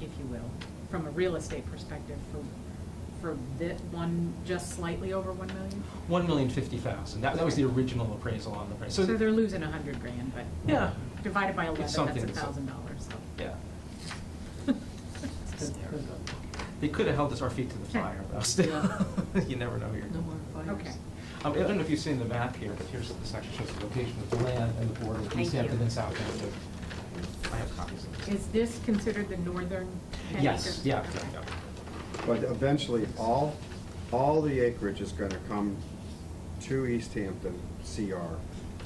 if you will, from a real estate perspective for, for this one, just slightly over one million? One million fifty thousand, that, that was the original appraisal on the price. So they're losing a hundred grand, but. Yeah. Divided by eleven, that's something, a so- thousand dollars, so. Yeah, It's hysterical. they could have held us our feet to the fire, though, still, you never know here. No more fires. Okay. Um, I don't know if you've seen the map here, but here's the section shows the location of the land and the border, Thank East Hampton you. and South Hampton. I have copies of this. Is this considered the northern ten Yes, acres? yeah, Okay. yeah, But eventually, all, all the acreage is gonna come to East Hampton CR. yeah,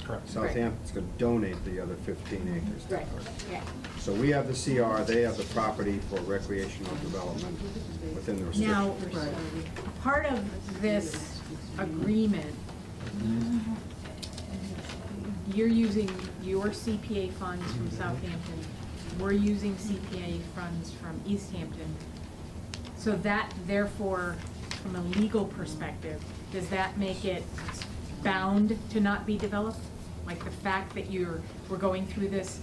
correct. So- Right. Southampton's gonna donate the other fifteen acres to Right, us. yeah, So we have the CR, they have the property for recreational development within the Now- restrictions. Right. part of this agreement, you're using your CPA funds from Southampton, we're using CPA funds from East Hampton. So that therefore, from a legal perspective, does that make it bound to not be developed? Like the fact that you're, we're going through this,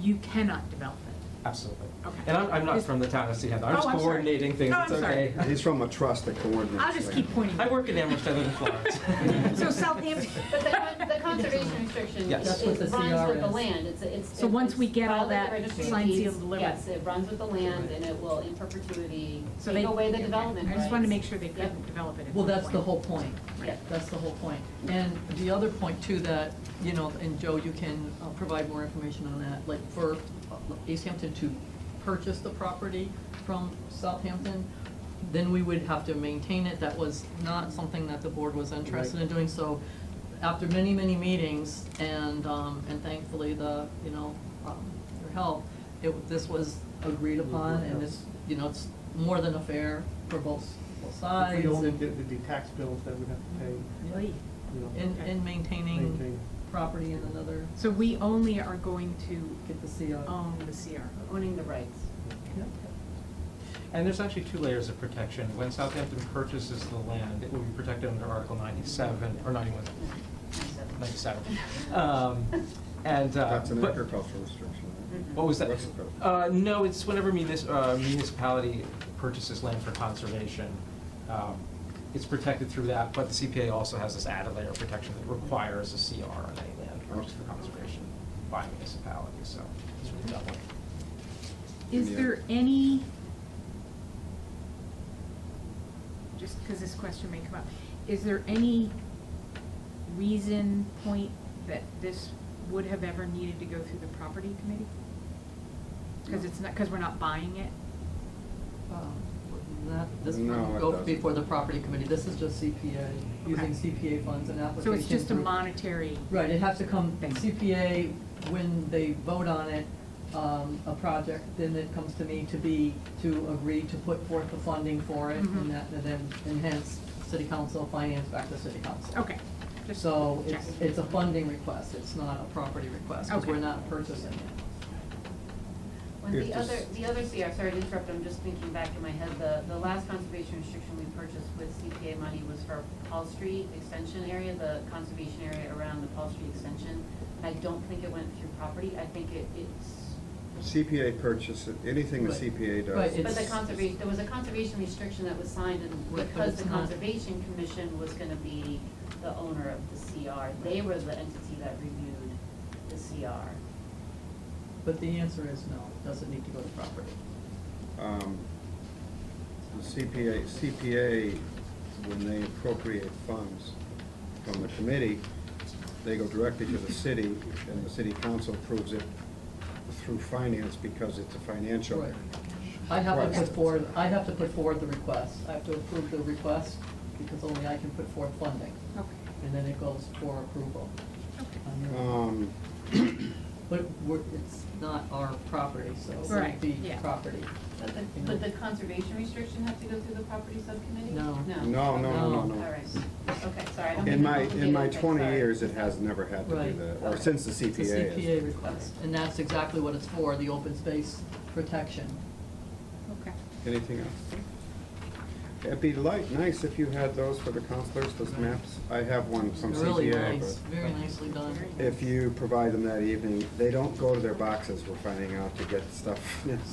you cannot develop it? Absolutely. Okay. And I'm, I'm not Is- from the town of Sea Hampton, Oh, I'm just I'm sorry. coordinating things, Oh, it's I'm sorry. okay. He's from a trust that coordinates. I'll just keep pointing. I work in Amherst, I live in Florence. So Southampton. But the, con- the conservation restriction Yes. is That's what the is runs with CR the is. land, it's, it's. So once we it's get all filed with that the registry of signed, deeds. sealed, delivered. Yes, it runs with the land and it will in perpetuity So they- take away the development I just wanted to make rights. sure they Yep. couldn't develop it. at Well, that that's the point. whole point. Yeah. That's the whole point. And the other point too, that, you know, and Joe, you can uh, provide more information on that, like for uh, East Hampton to purchase the property from Southampton, then we would have to maintain it. That was not something that the board was interested in doing, so after many, many meetings and, um, and thankfully the, you know, um, your help, it, this was agreed upon and it's, you know, it's more than a fair for both, both sides. If we only and- did, there'd be tax bills that we'd have to pay, Oy. you know. in, in maintaining Maintain. property in another, So Oh. we only are going to get uh, the CR. own the CR. Owning the rights. And there's actually two layers of protection. When Southampton purchases the land, it will be protected under Article 97, or 91, 97. Um, And, uh, That's an but- agricultural restriction. right? What was that? What's the code? Uh, no, it's whenever munis- uh, municipality purchases land for conservation, um, it's protected through that, but the CPA also has this added layer of protection that requires a CR on any land purchased for conservation by municipality, so it's really doubling. Is Yeah. there any, just because this question may come up, is there any reason, point, that this would have ever needed to go through the property committee? Because it's not, because we're not buying it? Um, That, this No, would it go doesn't. before the property committee, this is just CPA, using Okay. CPA funds and So application. it's just a through- monetary, Right, it has to come, Thing. CPA, when they vote on it, um, a project, then it comes to me to be, to agree to put forth the funding for it, Mhm. and that, and then, and hence, city council, finance back to city council. okay. just So it's, checking. it's a funding request, it's not a property request, because Okay. we're not purchasing it. When If the this- other, the other CR, sorry to interrupt, I'm just thinking back in my head, the, the last conservation restriction we purchased with CPA money was for Paul Street Extension area, the conservation area around the Paul Street Extension. I don't think it went through property, I think it, it's CPA purchase, anything the Right. CPA Right, does. it- But the It's- conservation, there was a conservation restriction that was signed, and Right, but because it's the not- conservation commission was gonna be the owner of the CR, they were the entity that reviewed the CR. But the answer is no, it doesn't need to go to property. Um, The CPA, CPA, when they appropriate funds from the committee, they go directly to the city, and the city council approves it through finance because it's a financial. Right. I have to Right. put forward, I have to put forward the request, I have to approve the request, because only I can put forth funding, Okay. and then it goes for approval. on your- Um, But we're, it's not our property, so it Right, wouldn't be yeah. property. But the, would the conservation restriction have to go through the property subcommittee? No. No? No, no, no, no, no. All right, okay, sorry. I don't mean In to my, in my complicate it, twenty sorry. years, it has never had to do Right. that, or since the It's a CPA. is. CPA request, and that's exactly what it's for, the open space protection. Okay. Anything else? It'd be light, nice if you had those for the counselors, those maps. I have one from CPA. Really nice, but- very nicely done. Very nice. if you provide them that evening, they don't go to their boxes, we're finding out to get stuff